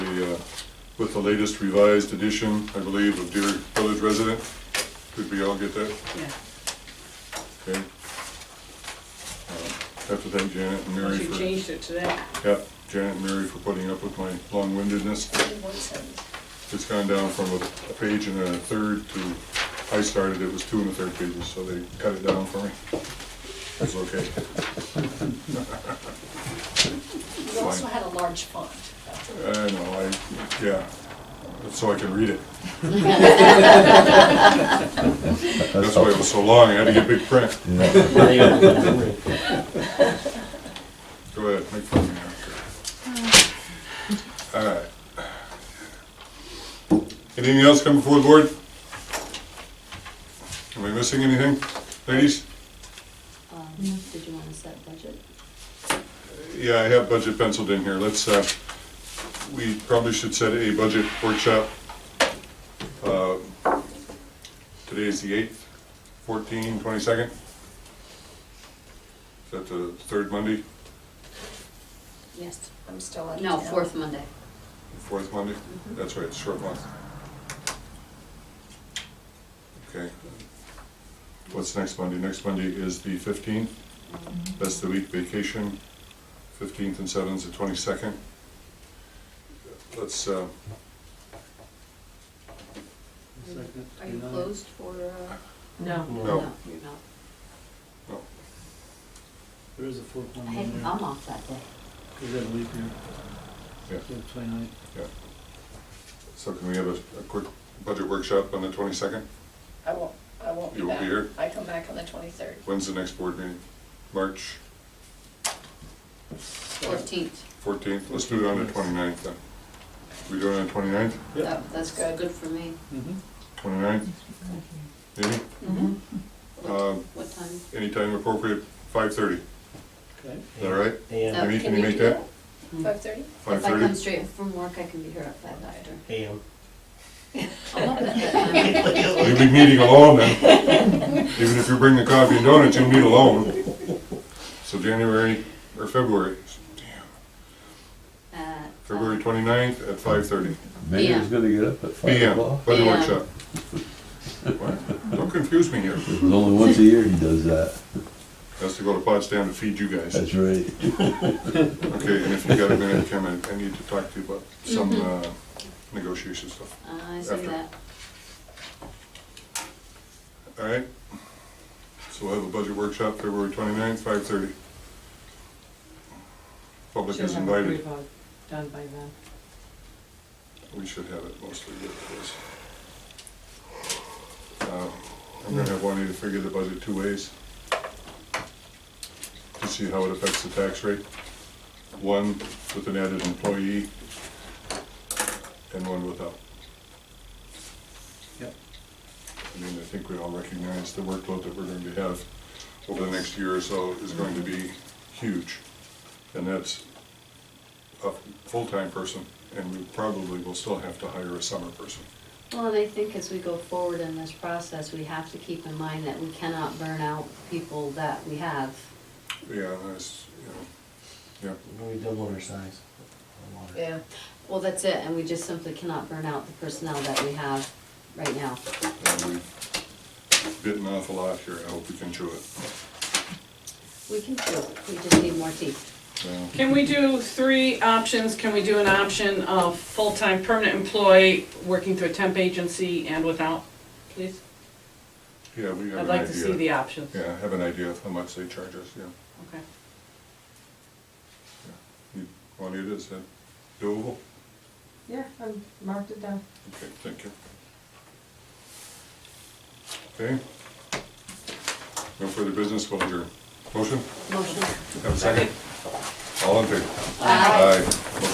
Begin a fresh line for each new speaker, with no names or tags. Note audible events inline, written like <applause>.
uh, with the latest revised edition, I believe, of Dear Village Resident. Did we all get that?
Yeah.
Okay. Uh, Have to thank Janet and Mary
Unless you
for,
changed it to that.
yeah, Janet and Mary for putting up with my long-windedness. It's gone down from a a page and a third to, I started, it was two and a third pages, so they cut it down for me. It's okay.
You also had a large font.
I know, I, yeah, so I can read it. That's why it was so long, I had to get big print. Go ahead, make fun of me after. All right. Anything else come before the board? Am I missing anything, ladies?
Um, Did you want to set budget?
Yeah, I have budget penciled in here. Let's, uh, we probably should set a budget workshop. Uh, Today is the eighth, fourteen, twenty-second. Is that the third Monday,
Yes.
I'm still on.
No, fourth Monday.
fourth Monday? That's right, it's short month. Okay. What's next Monday? Next Monday is the fifteenth. That's the week vacation, fifteenth and seventh, the twenty-second. Let's, uh,
Are you closed for, uh?
No.
No.
You're not.
no,
There is a fourth one
Hey,
in there.
I'm off that day.
Is that a leap year?
Yeah.
So Twenty-nine.
yeah. So can we have a, a quick budget workshop on the twenty-second?
I won't, I won't be
You won't
back.
be here?
I come back on the twenty-third.
When's the next board meeting? March
Fourteenth.
fourteenth? Let's do it on the 29th. then. We do it on the 29th.
Yep.
That's
Good.
good for me.
Mm-hmm.
29th? Maybe,
Mm-hmm.
Um,
What time?
anytime appropriate, five thirty, is
Okay.
that all right?
AM,
Amy, can
Oh, can
you
you
make
do
that?
Five thirty?
Five
If I come
thirty?
straight from work, I can be here at five after.
<laughs>
AM.
I'm
Oh,
up at <laughs> that time.
You'll be meeting alone then.
<laughs>
Even if you bring the coffee and donuts, you'll meet alone. So January, or February, damn,
At, uh,
February twenty-ninth at five thirty
Mayor's gonna get up at five
PM,
o'clock.
budget
Yeah.
workshop. What? Don't confuse me here.
It was only once a year he does that.
Has to go to Potsdam to feed you guys.
That's right.
Okay, and if you got a minute, Kim, I I need to talk to you about some
Mm-hmm.
uh, negotiation stuff.
I see
after.
that.
All right? So we'll have a budget workshop February 29th, five thirty. Public is invited.
Done by then.
We should have it mostly good for this. Uh, I'm gonna have Juanita figure the budget two ways. To see how it affects the tax rate. One with an added employee and one without.
Yep.
I mean, I think we all recognize the workload that we're going to have over the next year or so is going to be huge. And that's a full-time person, and we probably will still have to hire a summer person.
Well, and I think as we go forward in this process, we have to keep in mind that we cannot burn out people that we have.
Yeah, that's, you know,
We double our size. on water.
Yeah.
Well, that's it, and we just simply cannot burn out the personnel that we have right now.
yeah, and we've bitten off a lot here, I hope we can chew it.
We can do it, we just need more teeth.
Yeah.
Can we do three options? Can we do an option of full-time permanent employee, working through a temp agency and without, please?
Yeah, we have
I'd
an
like to see the
idea.
options.
Yeah, I have an idea of how much they charge us, yeah.
Okay.
You want it, is that doable?
Yeah, I marked it down.
Okay, thank you. Okay. No further business, we'll adjourn. Motion?
Motion.
Have a second? All in favor?
Aye.
Aye.